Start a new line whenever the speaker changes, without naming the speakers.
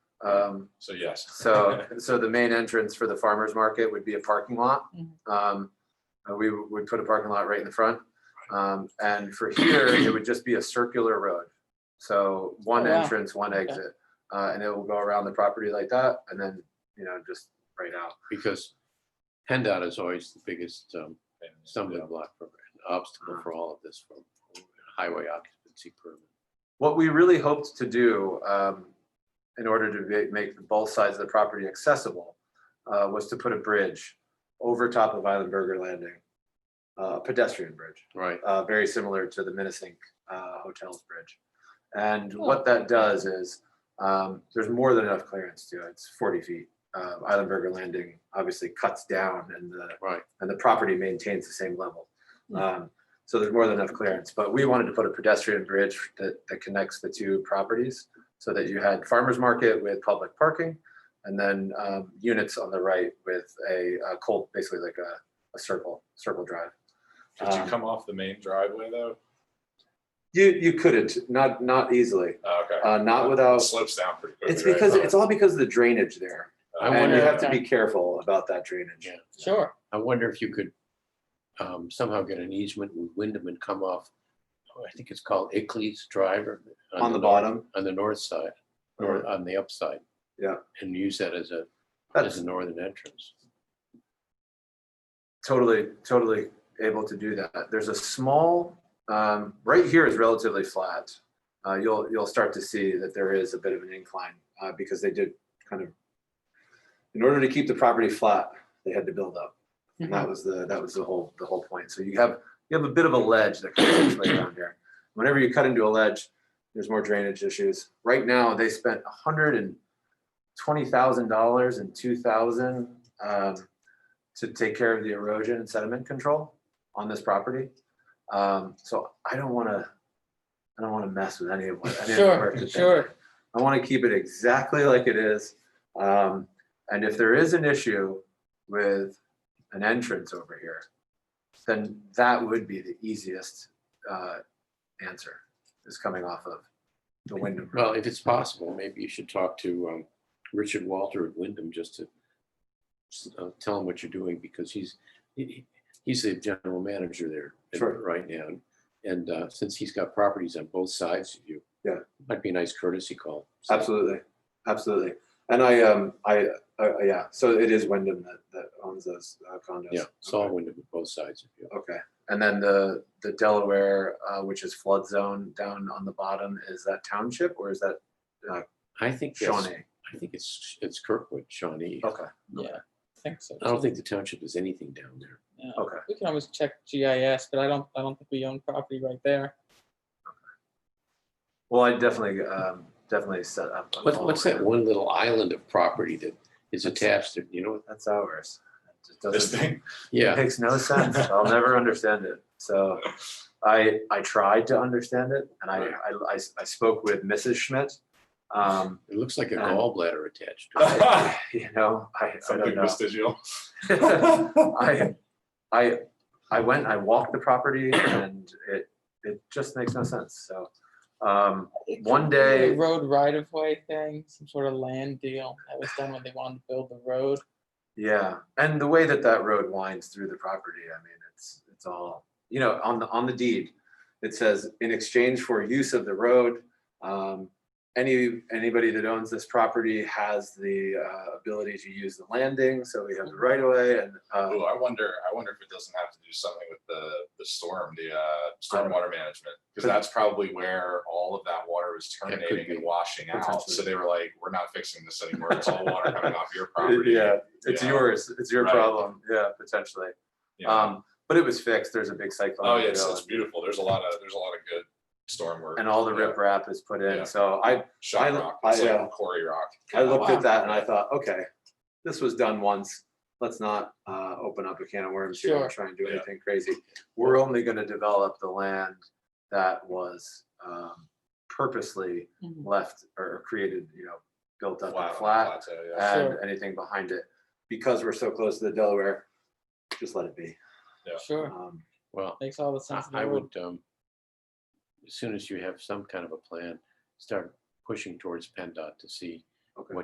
Um,
So yes.
So, so the main entrance for the farmer's market would be a parking lot.
Mm-hmm.
Um, uh, We would would put a parking lot right in the front. Um, And for here, it would just be a circular road. So one
Oh, wow.
entrance, one
Okay.
exit, Uh, and it will go around the property like that and then, you know, just right out.
because PennDOT is always the biggest um, stumbling block for, obstacle for all of this, for highway occupancy permit.
What we really hoped to do um, in order to ma- make both sides of the property accessible uh, was to put a bridge over top of Island Burger Landing, a pedestrian bridge.
Right,
uh, very similar to the Minnesink uh, Hotels Bridge. And what that does is, um, there's more than enough clearance to it. It's 40 feet. Uh, Islandberger Landing obviously cuts down and the,
right.
and the property maintains the same level. Um, So there's more than enough clearance, but we wanted to put a pedestrian bridge that, that connects the two properties so that you had farmer's market with public parking and then um, units on the right with a a cold, basically like a, a circle, circle drive.
Could you
Um,
come off the main driveway though?
You you couldn't, not not easily,
Oh, Okay.
uh, not without.
It Slips down pretty quickly.
It's
right? Uh,
because it's all because of the drainage there,
I
and you
wonder-
have to be careful about that drainage.
Yeah.
Sure.
I wonder if you could um, somehow get an easement with Wyndham and come off, oh, I think it's called Ickley's Drive or.
On the
north-
bottom,
On the north side, or on the upside.
Yeah.
And use that as a, as
that's
a northern entrance.
totally totally able to do that. There's a small um, right here is relatively flat. Uh, you'll you'll start to see that there is a bit of an incline uh, because they did kind of in order to keep the property flat, they had to build up. And
Mm-hmm.
that was the, that was the whole, the whole point. So you have, you have a bit of a ledge that comes this way down here. Whenever you cut into a ledge, there's more drainage issues. Right now, they spent hundred and twenty thousand dollars in two thousand um, to take care of the erosion and sediment control on this property. Um, so I don't wanna, I don't wanna mess with any of what, any of the work
Sure,
that they
sure.
I want to keep it exactly like it is. Um, and if there is an issue with an entrance over here, then that would be the easiest uh, answer is coming off of the Wyndham. Road.
Well, if it's possible, maybe you should talk to um, Richard Walter at Wyndham just to s- uh, tell him what you're doing because he's, he- he- he's the general manager there
Sure.
at- right now. And uh, since he's got properties on both sides of you.
Yeah.
Might be a nice courtesy call. So,
Absolutely, absolutely. And I, um, I, uh, yeah. So it is Wyndham that, that owns those uh, condos.
Yeah, it's all Wyndham on both sides of you.
Okay, and then the, the Delaware, uh, which is flood zone down on the bottom, is that township or is that
I think, that's-
Shawnee? Oh.
I think it's, it's Kirkwood, Shawnee.
Okay,
Yeah, I think so.
I don't think the township is anything down there.
Yeah.
okay.
We can always check GIS, but I don't, I don't think we own property right there.
Well, I definitely, um, definitely set up. a
What's,
call
what's
with
that
them.
one little island of property that is attached to, you know?
That's ours. It just
This
doesn't-
thing,
Yeah.
It makes no sense. I'll never understand it. So I, I tried to understand it and I,
Right.
I, I, I spoke with Mrs. Schmidt. Um,
It looks like a
Um,
gallbladder attached. to it.
something
you know, I, I don't know.
vestigial. Uh,
I, I, I went, I walked the property and it, it just makes no sense. So, um,
It
One
could be a
day-
Road right of way thing, some sort of land deal that was done when they wanted to build the road.
Yeah, and the way that that road winds through the property, I mean, it's, it's all, you know, on the, on the deed, it says, in exchange for use of the road, um, any, anybody that owns this property has the, uh, ability to use the landing, so we have the right of way and,
Ooh,
uh,
I wonder, I wonder if it doesn't have to do something with the, the storm, the, uh, stormwater management. Cause that's probably where all of that water was
could
terminating and
be.
washing out. So
Potentially.
they were like, we're not fixing this anymore. It's all water coming off your
it-
property.
yeah, it's
Yeah.
yours, it's your
Right.
problem, yeah, potentially.
Yeah.
Um, but it was fixed, there's a big cyclone.
Oh, yeah, it's,
drill
it's beautiful. There's a lot of, there's a lot of good storm work.
And and all the
Yeah.
riprap is put
Yeah.
in, so I, I-
Shot rock, it's
I, uh,
like quarry rock.
I looked
Oh, wow.
at that and I thought, okay, this was done once. Let's not uh, open up a can of worms here
Sure.
and try and do
Yeah.
anything crazy. We're only gonna develop the land that was um, purposely left or created, you know, built up
Flat
and
on
flat
plateau, yeah.
and
Sure.
anything behind it. Because we're so close to the Delaware, just let it be.
Yeah.
Sure,
Um,
Well,
makes all the
I-
sense. in the
I
world.
would, um, as soon as you have some kind of a plan, start pushing towards PennDOT to see
Okay.
what